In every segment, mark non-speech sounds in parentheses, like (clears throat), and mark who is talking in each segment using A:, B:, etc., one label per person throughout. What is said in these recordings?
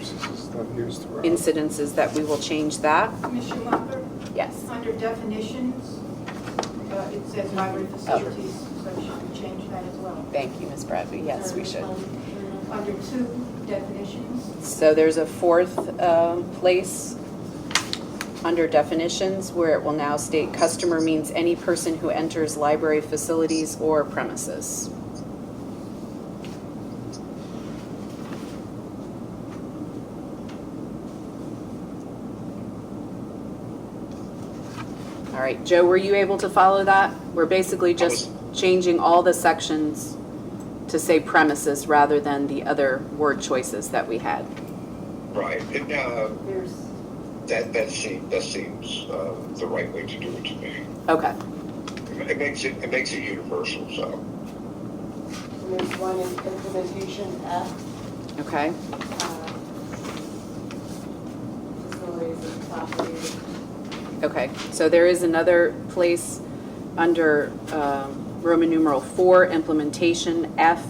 A: It's not used throughout.
B: incidences that we will change that.
C: Commissioner Mopper,
B: Yes.
C: under definitions, uh, it says library
B: Oh.
C: facilities, so should we change that as well?
B: Thank you, Ms. Bradby. Yes, we should.
C: Under two definitions,
B: So there's a fourth um, place under definitions where it will now state customer means any person who enters library facilities or premises. All right, Joe, were you able to follow that? We're basically just changing all the sections to say premises rather than the other word choices that we had.
D: Right, and, uh,
C: there's,
D: that, that seems, that seems, uh, the right way to do it to me.
B: Okay,
D: It makes it, it makes it universal, so.
E: And there's one in implementation F,
B: okay,
E: uh, facilities and property.
B: okay. So there is another place under um, Roman numeral four, implementation F,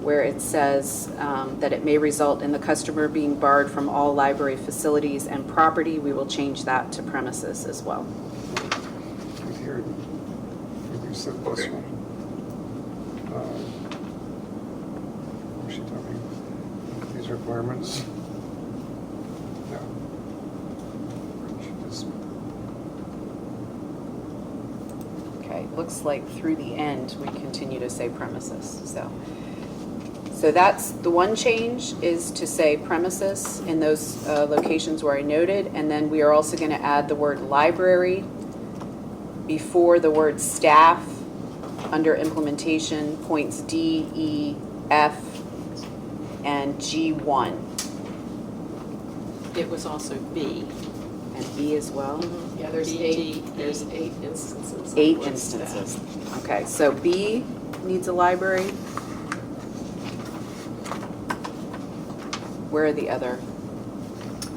B: where it says um, that it may result in the customer being barred from all library facilities and property. We will change that to premises as well.
A: Right Here, when you said this
D: Okay.
A: one. Uh, what was she talking, these requirements? No. She just-
B: Okay, looks like through the end, we continue to say premises, so. So that's, the one change is to say premises in those uh, locations where I noted, and then we are also going to add the word library before the word staff under implementation, points D, E, F, and G1,
F: It was also B. E.
B: and B as well.
E: Mm-hmm.
F: Yeah, there's
B: B,
F: eight, there's eight instances. of
B: Eight
F: what's that.
B: instances. Okay, so B needs a library. Where are the other?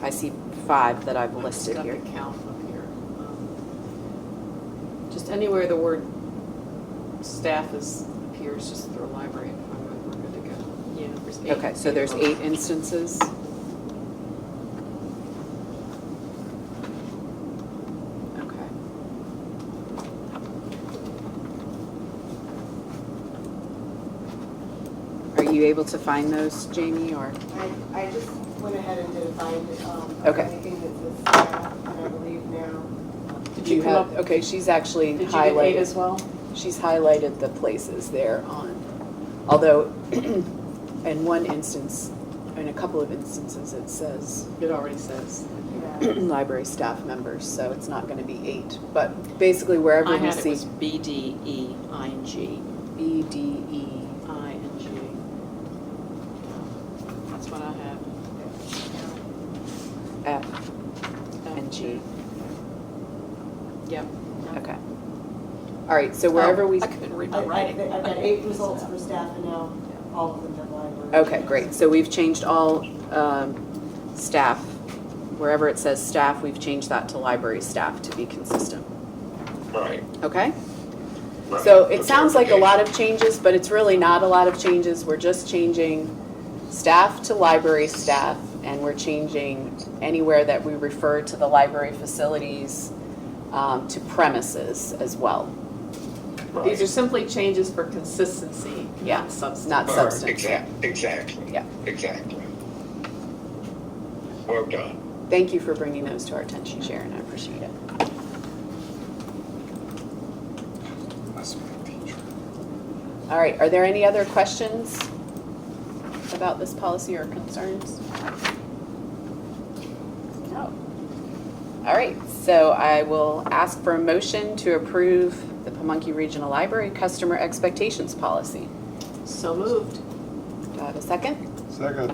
B: I see five that I've
F: I've
B: listed
F: got
B: here.
F: the count up here. Um, Just anywhere the word staff is, appears, just throw library in front of it, we're good to go. Yeah, there's eight.
B: Okay, so there's
F: of them.
B: eight instances. Okay. Are you able to find those, Jamie, or?
E: I, I just went ahead and did a find, um, of
B: Okay.
E: anything that says staff, and I believe now.
F: Did
B: Do you
F: you come
B: have,
F: up,
B: okay, she's actually
F: did you get eight
B: highlighted,
F: as well?
B: she's highlighted the places there on, although (clears throat) in one instance, in a couple of instances, it says (clears throat)
F: It already says.
E: Yeah.
B: library staff members, so it's not gonna be eight, but basically wherever
F: I
B: we
F: had it
B: see
F: was B D E I N G,
B: B, D, E.
F: I N G. That's what I have.
B: F, and G,
F: Yep.
B: okay. All right, so wherever
F: Oh,
B: we,
F: I couldn't read
E: I-
F: my
E: I-
F: writing.
E: I've got eight results for staff, and now all of them have library.
B: okay, great, so we've changed all, um, staff, wherever it says staff, we've changed that to library staff to be consistent,
D: Right,
B: okay?
D: right.
B: So
D: For
B: it sounds like a lot
D: clarification.
B: of changes, but it's really not a lot of changes. We're just changing staff to library staff, and we're changing anywhere that we refer to the library facilities um, to premises as well,
D: Right.
F: These are simply changes for consistency,
B: Yeah,
F: not substance.
B: not
D: Right,
B: substance.
D: exact- Exactly.
B: Yeah.
D: Exactly. Well done.
B: Thank you for bringing those to our attention, Sharon. I appreciate it.
A: Must be a teacher.
B: All right, are there any other questions about this policy or concerns? No. All right, so I will ask for a motion to approve the Pamunkey Regional Library Customer Expectations Policy.
F: So moved.
B: Do I have a second?
A: Second,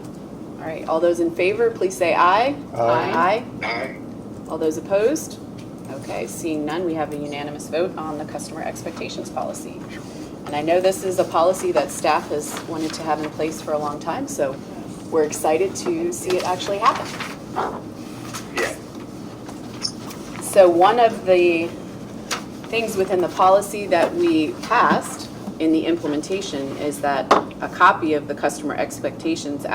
B: All right, all those in favor, please say aye.
A: Aye.
B: Aye.
D: Aye,
B: All those opposed? Okay, seeing none, we have a unanimous vote on the customer expectations policy. And I know this is a policy that staff has wanted to have in place for a long time, so we're excited to see it actually happen.
D: yeah.
B: So one of the things within the policy that we passed in the implementation is that a copy of the customer expectations